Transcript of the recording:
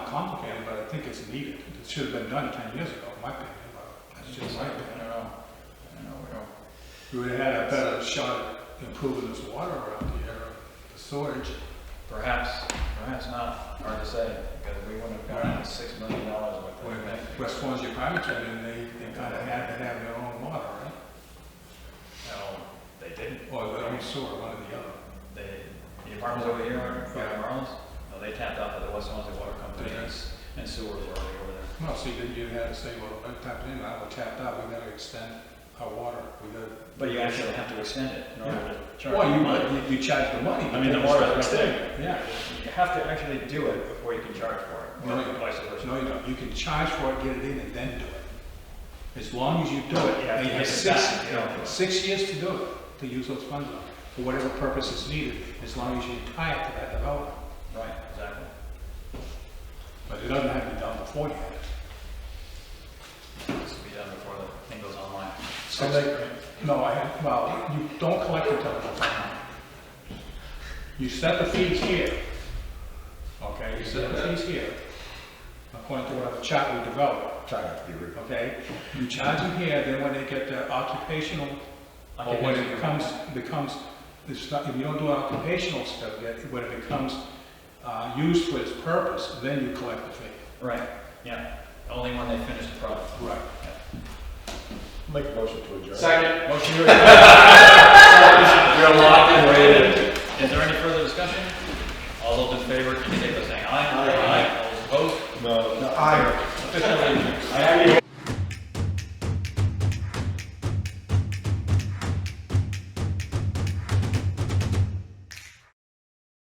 complicated, but I think it's needed. It should have been done ten years ago, in my opinion, but that's just my I opinion. don't know, I don't know, we don't. We would have had a better shot at improving this water around here, the storage. Perhaps, perhaps not, hard to say, because we wouldn't have gotten the six million dollars worth of it. West Swansea Primary came in, they, they kind of had to have their own water, right? No, they didn't. Or their own sewer, one or the other. They, the apartments over here are from Yeah. Marlins, no, they tapped out to the West Swansea Water Company Yeah. and s- and sewer were already over there. Well, see, then you had to say, well, I tapped in, I was tapped out, we gotta extend our water, we gotta. But you actually have to extend it in order to charge. Well, the you, money. might- you you charge the money. I mean, the but water it's is extended. extended. Yeah. You have to actually do it before you can charge for it, No. or vice versa. No, you don't. You can charge for it, get it in, and then do it. As long as you do it, You have and to you have get it six, back, you know. six years to do it, to use those funds on, for whatever purpose is needed, as long as you tie it to that development. Right, exactly. But it doesn't have to be done before you have it. This will be done before the thing goes online. So they, no, I, have- well, you don't collect the telephone. You set the fees here. Okay, you set the fees here. According to whatever chart we develop, Try not to be rude. okay? You charge them here, then when they get their occupational, or when it becomes, becomes, it's not- if you don't do an occupational stuff yet, when it becomes, uh, used for its purpose, then you collect the fee. Right, yeah, only when they finish the product. Right. Make a motion to adjourn. Second. Motion to adjourn. You're locked and waiting. Is there any further discussion? All those in favor, indicate by saying aye. Aye. All those opposed? No, no, I. Officially adjourned. I have your